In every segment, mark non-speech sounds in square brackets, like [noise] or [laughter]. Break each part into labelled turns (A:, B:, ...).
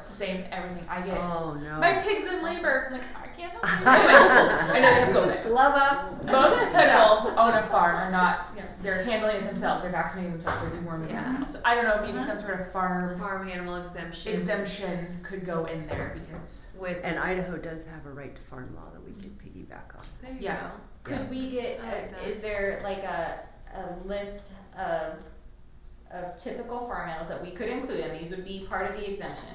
A: save everything. I get
B: Oh, no.
A: my pig's in labor. I'm like, I [laughs] can't help you. Anyway, I know they have
C: Just
A: COVID.
C: glove up.
A: Most people own a farm are not, you know, they're handling it themselves, they're vaccinating themselves, they're deworming
C: Yeah.
A: themselves. So I don't know, maybe some sort of farm
C: Farm animal exemption.
A: exemption could go in there because
C: With,
B: And Idaho does have a right to farm law that we can piggyback on.
C: there you
A: Yeah.
C: go.
B: Yeah.
D: Could we get,
C: I like
D: uh,
C: that.
D: is there like a, a list of, of typical farm animals that we could include, and these would be part of the exemption?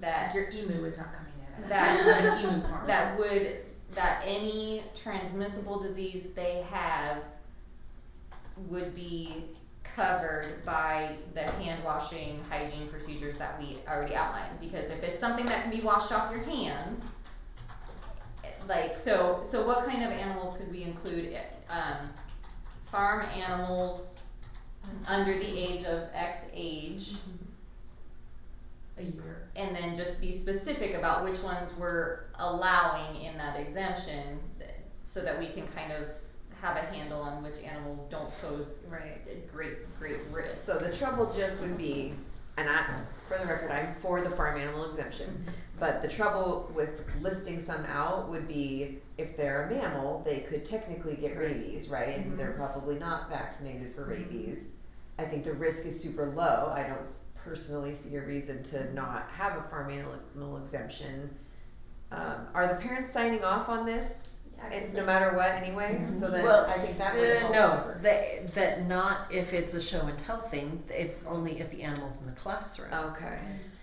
D: That,
A: your emu is not coming in.
D: That-
A: You're
C: [laughs]
A: an emu farm.
D: that would, that any transmissible disease they have would be covered by the hand washing hygiene procedures that we already outlined, because if it's something that can be washed off your hands, eh, like, so, so what kind of animals could we include, eh, um, farm animals under the age of X age,
A: a year.
D: and then just be specific about which ones we're allowing in that exemption, th- so that we can kind of have a handle on which animals don't pose s-
C: Right.
D: a great, great risk.
C: So the trouble just would be, and I, for the record, I'm for the farm animal exemption, but the trouble with listing some out would be if they're a mammal, they could technically get rabies, right? And
E: Mm-hmm.
C: they're probably not vaccinated for rabies. I think the risk is super low. I don't s- personally see a reason to not have a farm animal exemption. Um, are the parents signing off on this? It's no matter what anyway, so then
E: Well,
C: I think that would
E: Uh,
C: help.
E: no, that, that not if it's a show and tell thing, it's only if the animal's in the classroom.
C: Okay.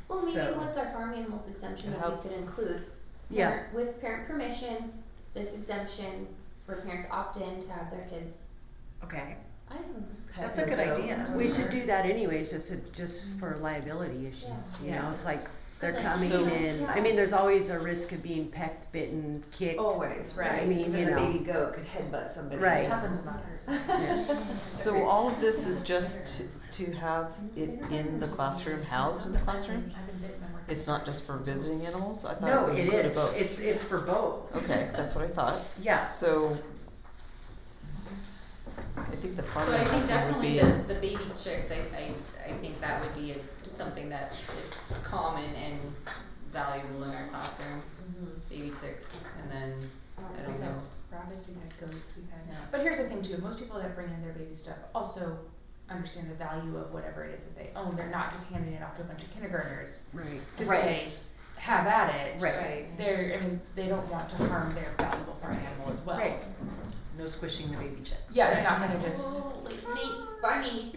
F: Well, maybe
E: So-
F: with our farm animals exemption, that we
E: Help.
F: could include.
B: Yeah.
F: parent- With parent permission, this exemption, where parents opt in to have their kids,
E: Okay,
F: I don't know.
E: that's a good idea.
C: Mm-hmm.
B: We should do that anyways, just to, just for liability issues, you know,
E: Yeah.
B: it's like, they're
F: Cause like,
B: coming
F: so-
B: in, I mean, there's always a risk of being pecked, bitten, kicked.
C: Always, right.
B: I mean,
C: Even
B: you
C: a
B: know.
C: baby goat could headbutt somebody.
B: Right.
A: Toughens them
E: [laughs]
A: up.
G: So all of this is just to- to have it in the classroom, housed in the classroom?
A: I've been bitten by more-
G: It's not just for visiting animals? I
E: No,
G: thought
E: it
G: it would
E: is,
G: include both.
E: it's, it's for both.
G: Okay, that's what I thought.
E: Yeah,
G: So I think the farm
D: So I think
G: animal would
D: definitely
G: be
D: the, the baby chicks, I, I, I think that would be a- something that is common and valuable in our classroom.
B: Mm-hmm.
D: Baby chicks, and then, I don't
A: We've had
D: [laughs] know.
A: Rabbits, we've had goats, we've had.
D: Yeah.
A: But here's the thing too, most people that bring in their baby stuff also understand the value of whatever it is that they own. They're not just handing it off to a bunch of kindergartners
B: Right.
A: to
E: Right.
A: say, have at it.
E: Right.
C: Right.
A: They're, I mean, they don't want to harm their valuable farm animal as well.
E: right. No squishing the baby chicks.
A: Yeah, they're not gonna just.
F: Oh, like [laughs] Nate's bunny.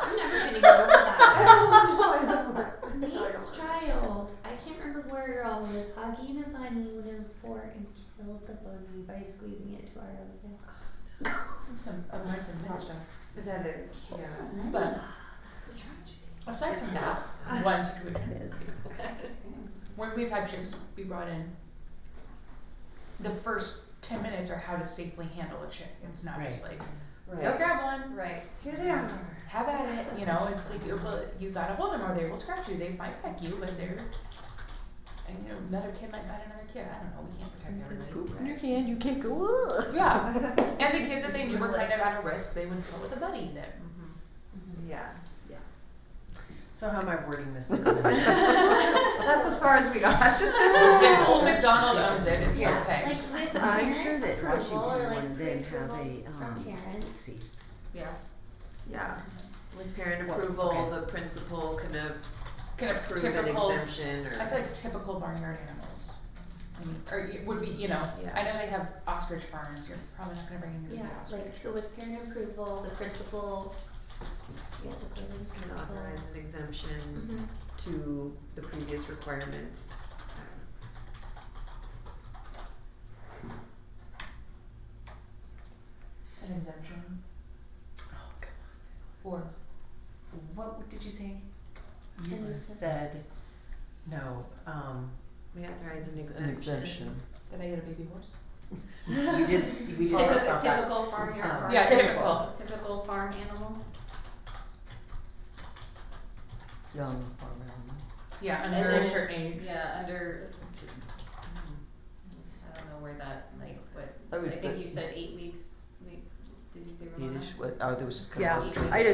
F: I'm never gonna get over [laughs] that. [laughs] Nate's child. I can't remember where you're all was hugging a bunny when it was four and killed the bunny by squeezing it to our nose.
A: Some, I learned some good stuff.
C: That is, yeah.
A: But
F: That's a
A: aside
F: tragedy.
A: from that, one situation. When we've had chicks be brought in, the first ten minutes are how to safely handle a chick. It's not just like, go grab one,
D: right,
C: Here they are.
A: have at it, you know, it's like, you you gotta hold them or they will scratch you, they might peck you, but they're, and you know, another kid might bite another kid, I don't know, we can't protect everybody.
G: poop in your hand, you can't go, "Ugh." [laughs]
A: Yeah, and the kids that they knew were kind of at a risk, they would go with a buddy then.
C: Yeah.
E: So how am I wording
C: [laughs]
E: this?
G: [laughs]
C: That's as far as we [laughs] got.
A: If Old McDonald owns it, it's
B: Yeah.
A: okay.
F: Like with
B: I'm sure
F: parent
B: that
F: approval or
B: Washington
F: like
B: one did have
F: pre-approval
B: a,
F: from
B: um,
F: parent.
B: Let's see,
D: yeah.
C: Yeah. With parent
E: Well,
C: approval,
E: okay.
C: the principal can
A: Kind of
C: approve an
A: typical,
C: exemption
A: I feel
C: or.
A: like typical barnyard animals. I mean, or y- would be, you know,
C: Yeah.
A: I know they have ostrich farms, you're probably not gonna bring in your
F: Yeah,
A: ostrich.
F: like, so with parent approval, the principal, yeah, the building
C: Can
F: principal.
C: authorize an exemption
F: Mhm.
C: to the previous requirements.
A: An exemption for
E: What did you say? You
F: And-
E: said, no, um,
C: We authorize an exemption.
G: an exemption.
A: Did I get a baby horse?
E: we did, s- we did. talk
D: Typical,
E: about that.
D: typical farm
E: Uh,
D: animal.
A: Yeah, typical.
D: Typical farm animal.
G: Young farm animal.
A: Yeah,
D: And
A: under
D: then
A: a
D: it's-
A: certain age.
D: Yeah, under, I don't know where that, like, what,
G: I would
D: I think
G: put-
D: you said eight weeks, wait, did you say Ramona?
G: Yiddish, what, oh, there was just kind of.
B: yeah,
G: a little-
B: I just